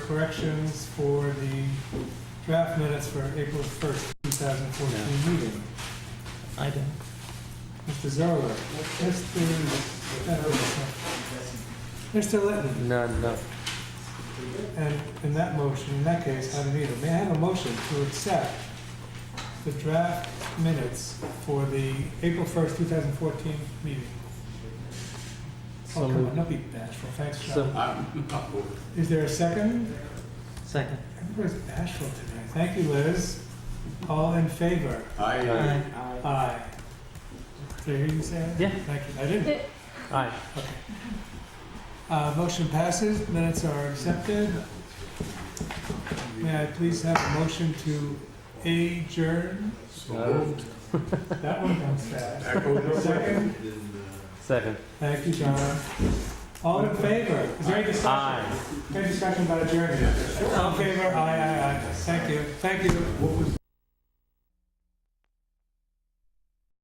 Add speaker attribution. Speaker 1: corrections for the draft minutes for April 1st, 2014 meeting.
Speaker 2: I don't.
Speaker 1: Mr. Zarla, Mr. Edwards, Mr. Litton,
Speaker 2: None, no.
Speaker 1: and in that motion, in that case, I don't either. May I have a motion to accept the draft minutes for the April 1st, 2014 meeting? Oh,
Speaker 2: So
Speaker 1: come on,
Speaker 2: moved.
Speaker 1: don't be bashful, thanks, John.
Speaker 2: So-
Speaker 3: I'm, I'm moving.
Speaker 1: Is there a second?
Speaker 2: Second.
Speaker 1: Everybody's bashful today. Thank you, Liz. All in favor?
Speaker 3: I, uh,
Speaker 2: Aye.
Speaker 1: Aye. Did I hear you say that?
Speaker 2: Yeah.
Speaker 1: Thank you. I didn't.
Speaker 2: Aye.
Speaker 1: Uh, motion passes, minutes are accepted. May I please have a motion to adjourn?
Speaker 3: so moved.
Speaker 1: That one comes fast.
Speaker 3: Echo the-
Speaker 1: Second?
Speaker 2: Second.
Speaker 1: Thank you, John. All in favor? Is there any discussion?
Speaker 2: Aye.
Speaker 1: Any discussion about adjournment? All in favor? Aye, aye, aye. Thank you, thank you.
Speaker 3: What was